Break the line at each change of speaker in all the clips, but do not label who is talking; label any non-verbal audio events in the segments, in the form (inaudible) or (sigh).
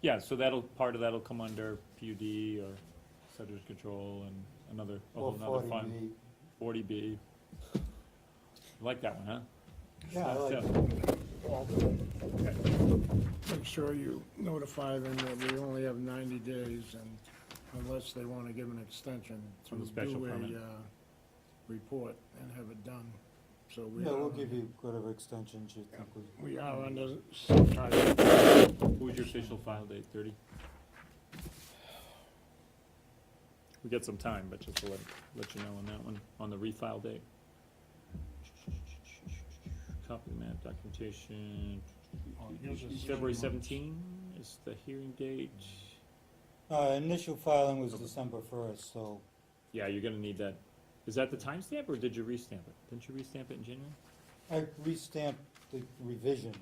Yeah, so that'll, part of that'll come under PUD or subject control and another, a
Or
whole nother fund.
40B.
Forty B. Like that one, huh?
Yeah, I like,
So-
Make sure you notify them that we only have 90 days and unless they want to give an extension to
On the special
do
permit.
a, uh, report and have it done. So we
yeah, we'll
are,
give you whatever extensions you think we.
we are under some type of
What was your official file date, thirty? We got some time, but just to let, let you know on that one, on the refile date. Copy the map documentation.
Oh,
February seventeen is the hearing date.
Uh, initial filing was
Okay.
December first, so,
Yeah, you're gonna need that. Is that the timestamp or did you restamp it? Didn't you restamp it in January?
I restamped the revision.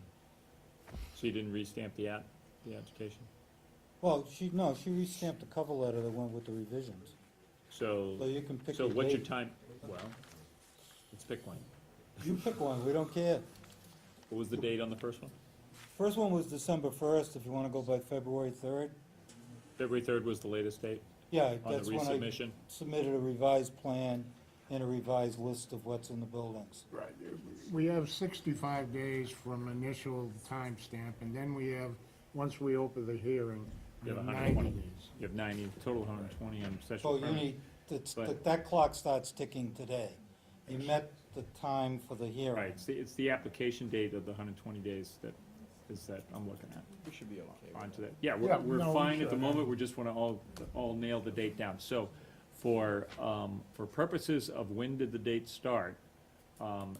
So you didn't restamp the app, the application?
Well, she, no, she restamped the cover letter that went with the revisions, so
So,
you can pick
so
your
what's your
date.
time, well, let's pick one.
You pick one, we don't care.
What was the date on the first one?
First one was December first, if you wanna go by February third.
February third was the latest date
Yeah,
on
that's
the
when I
resubmission.
submitted a revised plan and a revised list of what's in the buildings.
Right. We have sixty-five days from initial timestamp, and then we have, once we open the hearing, we
You
have
have
ninety
120.
days.
You have ninety, total hundred and twenty on
So
special
you
permit.
need, it's,
But-
that- that clock starts ticking today. You met the time for the hearing.
Right, it's the, it's the application date of the hundred and twenty days that, is that I'm looking at,
We should be okay. with
onto that. Yeah,
Yeah,
we're, we're
no, we
fine at the
should.
moment, we just wanna all, all nail the date down. So for, um, for purposes of when did the date start, um,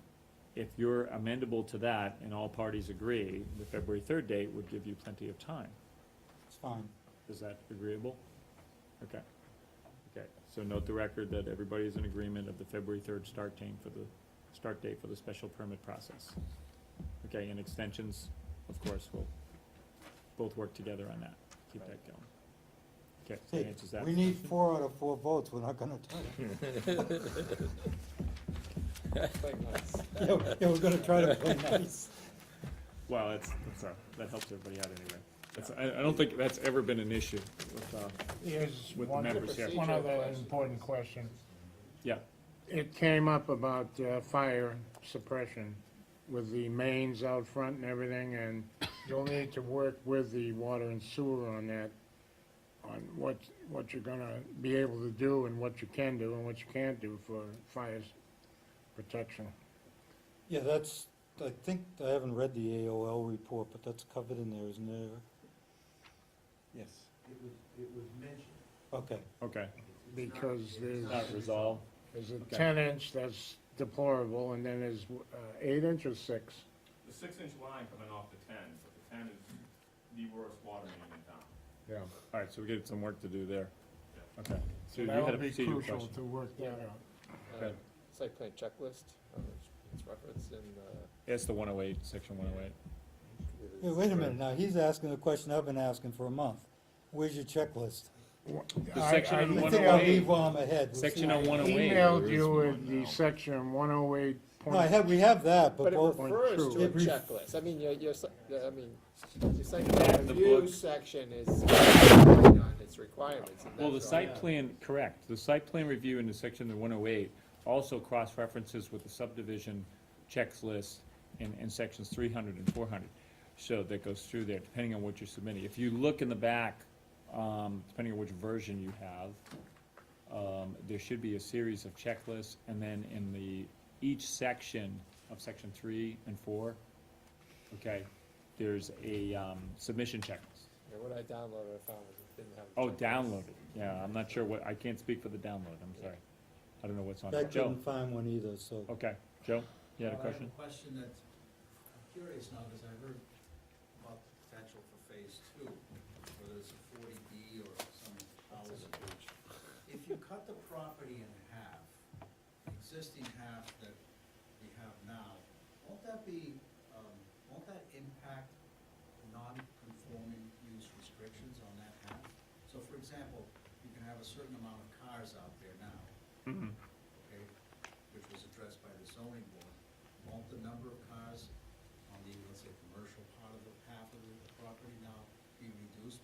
if you're amendable to that and all parties agree, the February third date would give you plenty of time.
It's fine.
Is that agreeable? Okay. Okay, so note the record that everybody is in agreement of the February third start date for the, start date for the special permit process. Okay, and extensions, of course, we'll both work together on that, keep that going. Okay, so that
Hey,
answers that.
we need four out of four votes, we're not gonna
(laughs)
do it. Yeah, yeah, we're gonna
(laughs)
try to play nice.
Well, that's, that's, uh, that helps everybody out anyway. That's, I, I don't think that's ever been an issue with, uh,
Here's
With the
one,
members here.
one other important question.
yeah,
It came up about uh, fire suppression with the mains out front and everything, and you'll need to work with the water and sewer on that, on what, what you're gonna be able to do and what you can do and what you can't do for fire protection.
Yeah, that's, I think, I haven't read the AOL report, but that's covered in there, isn't there?
Yes.
Okay,
okay,
Because there's,
not resolved.
there's a
Okay.
ten inch that's deplorable, and then there's uh, eight inch or six.
The six-inch line coming off the ten, but the ten is the worst water main in town.
Yeah.
All right, so we get some work to do there. Okay, so you had a
That'll be
procedural
crucial
question.
to work that out.
um,
Okay.
Site plan checklist, uh, it's referenced in, uh.
It's the one oh eight, section one oh eight.
it
yeah,
is-
wait a minute, now, he's asking the question I've been asking for a month. Where's your checklist?
The
I-
section
I-
in
I
One
think I'll
108.
leave while I'm ahead. We'll see.
Section on one oh eight.
emailed you with the section one oh eight
No, I
point,
have, we have that, but
But it
both,
refers to a
It ref-
checklist, I mean, your, your, si- the- I mean, your site plan
the
review
books.
section is on its requirements. and
Well, the
that's all.
site plan, correct, the site plan review in the section of the one oh eight also cross-references with the subdivision checklist in, in sections 300 and 400. So that goes through there, depending on what you're submitting. If you look in the back, um, depending on which version you have, um, there should be a series of checklists, and then in the, each section of section three and four, okay, there's a, um, submission checklist.
Yeah, What I downloaded, I found was it didn't have. a
Oh,
checklist.
download it, yeah, I'm not sure what, I can't speak for the download, I'm sorry. I don't know what's on
I
it. Joe,
couldn't find one either, so.
okay, Joe, you had a
Well, I have
question?
a question that, I'm curious now, because I heard about the potential for phase two, whether it's a forty B or some hours approach. If you cut the property in half, the existing half that we have now, won't that be, um, won't that impact non-conforming use restrictions on that half? So for example, you can have a certain amount of cars out there now
Mhm.
okay, which was addressed by the zoning board, won't the number of